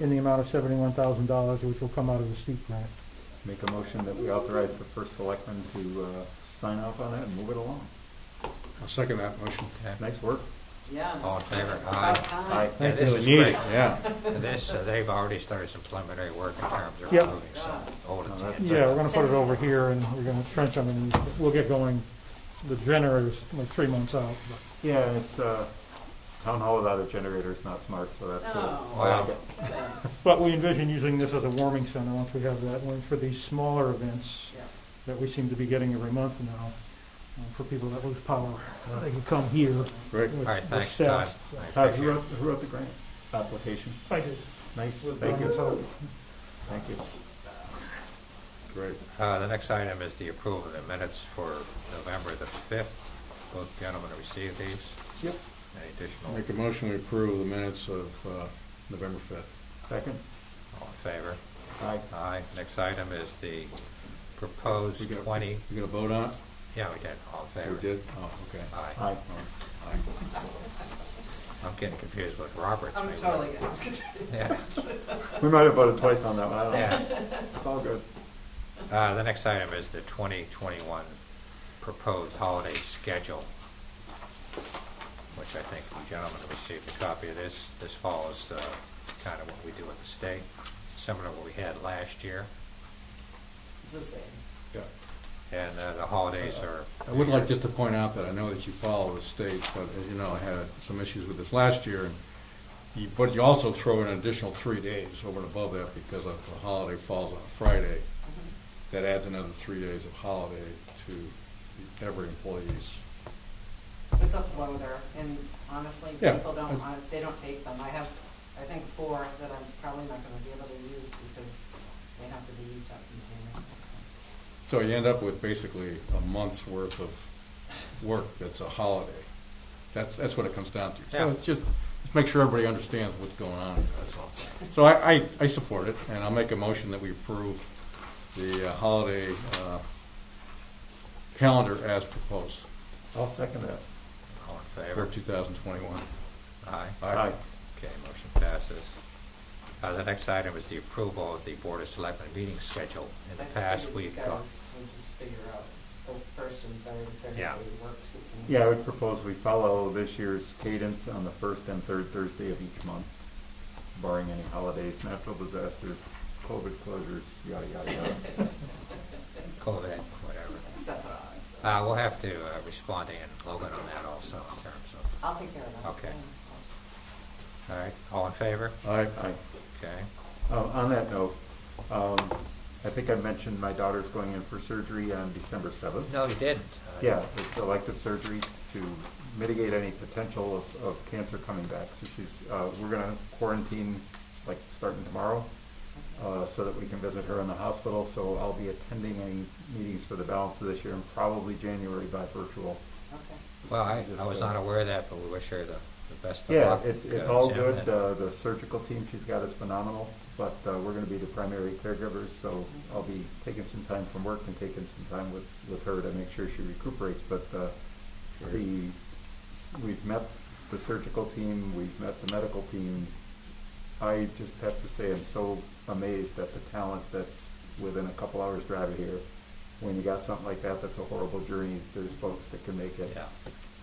in the amount of seventy-one thousand dollars, which will come out of the steep grant. Make a motion that we authorize the first selectman to uh, sign off on that and move it along. I'll second that motion. Nice work. Yeah. All in favor? About Aye. time. Yeah, Thank this you. is Neat, great. Yeah. And This, uh, they've already started some preliminary work in terms of Yep. removing some old No, that's- intent. Yeah, we're gonna put it over here and we're gonna trench them and we'll get going. The generator's like three months out. but- Yeah, it's, uh, town hall without a generator is not smart, so that's good. No. Oh, I like it. But we envision using this as a warming center once we have that one for these smaller events Yeah. that we seem to be getting every month now. uh, For people that lose power, they can come here. Great. with- All right, with thanks, Todd. staff. I Todd, appreciate Uh, who it. wrote, who wrote the grant application? I did. Nice, thank you, thank you. Great. Uh, The next item is the approval of the minutes for November the 5th. Both gentlemen received these. Yep. Any additional, Make a motion to approve the minutes of uh, November 5th. Second? all in favor? Aye. Aye. Next item is the proposed We got- 20, You gonna vote on it? yeah, we did, all in We favor? did? Oh, okay. Aye. Aye. Aye. I'm getting confused with Roberts. I'm maybe. totally good. Yeah. We might have voted twice on that one, I don't know. Yeah. It's all good. Uh, The next item is the 2021 proposed holiday schedule, which I think you gentlemen have received a copy of this. This follows kind of what we do at the state, similar to what we had last year. It's the same. Yeah. And uh, the holidays are, I would like just to point out that I know that you follow the state, but as you know, I had some issues with this last year. and you- But you also throw in an additional three days over and above that because of the holiday falls on a Friday. That adds another three days of holiday to every employee's. It's a floater, and honestly, Yeah. people don't, hon- they don't take them. I have, I think, four that I'm probably not gonna be able to use because they have to be used up in January. So you end up with basically a month's worth of work that's a holiday. That's, that's what it comes down to. So Yeah. it's just, just make sure everybody understands what's going on, that's all. So I, I, I support it, and I'll make a motion that we approve the uh, holiday, uh, calendar as proposed I'll second that. all in for favor? two thousand twenty-one. Aye. Aye. Okay, motion passes. Uh, The next item is the approval of the Board of Selectmen meeting schedule. In the I past, figured we've You got, guys would just figure out the first and third, Thursday Yeah. works. It's in- Yeah, I would propose we follow this year's cadence on the first and third Thursday of each month, barring any holidays, natural disasters, COVID closures, yada, yada, yada. COVID, whatever. Except for us. Uh, We'll have to uh, respond to Ann Logan on that also in terms of I'll take care of that. Okay. Yeah. All right, all in favor? Aye. Aye. Okay. Uh, On that note, um, I think I mentioned my daughter's going in for surgery on December 7th. No, you didn't. Yeah, it's elective surgery to mitigate any potential of, of cancer coming back. So she's, uh, we're gonna quarantine, like, starting tomorrow, uh, so that we can visit her in the hospital. So I'll be attending any meetings for the balance of this year and probably January by virtual. Okay. Well, I, I was not aware of that, but we wish her the, the best of Yeah, luck. it's, it's Uh, all Sam, good. and- Uh, the surgical team she's got is phenomenal, but, uh, we're gonna be the primary caregivers, so I'll be taking some time from work and taking some time with, with her to make sure she recuperates, but, uh, the, we've met the surgical team, we've met the medical team. I just have to say, I'm so amazed at the talent that's within a couple hours drive of here. When you got something like that, that's a horrible journey. There's folks that can make it Yeah,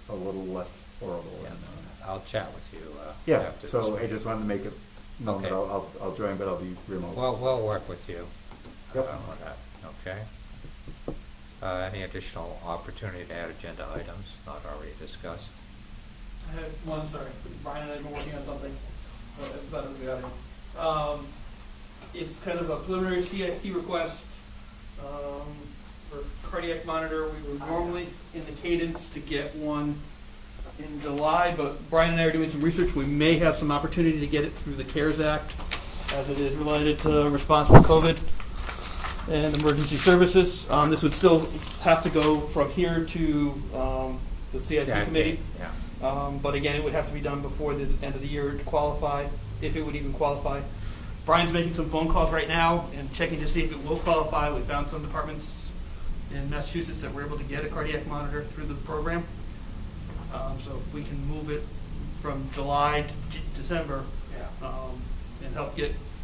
a little less horrible. yeah, and, uh, I'll chat with you, uh. yeah, after so this I meeting. just wanted to make it known that Okay. I'll, I'll, I'll join, but I'll be remote. Well, we'll work with you. uh, Yep. On that, okay? Uh, any additional opportunity to add agenda items not already discussed? I had one, sorry, Brian and I have been working on something, but it's not in the audience. Um, it's kind of a preliminary CIP request, um, for cardiac monitor, we were normally in the cadence to get one in July, but Brian and I are doing some research, we may have some opportunity to get it through the CARES Act, as it is related to response to COVID and emergency services. Um, this would still have to go from here to, um, the CIP committee. Yeah, Um, but again, it would have to be done before the end of the year to qualify, if it would even qualify. Brian's making some phone calls right now and checking to see if it will qualify. We found some departments in Massachusetts that were able to get a cardiac monitor through the program. Um, so if we can move it from July to J- December, Yeah. um, and help get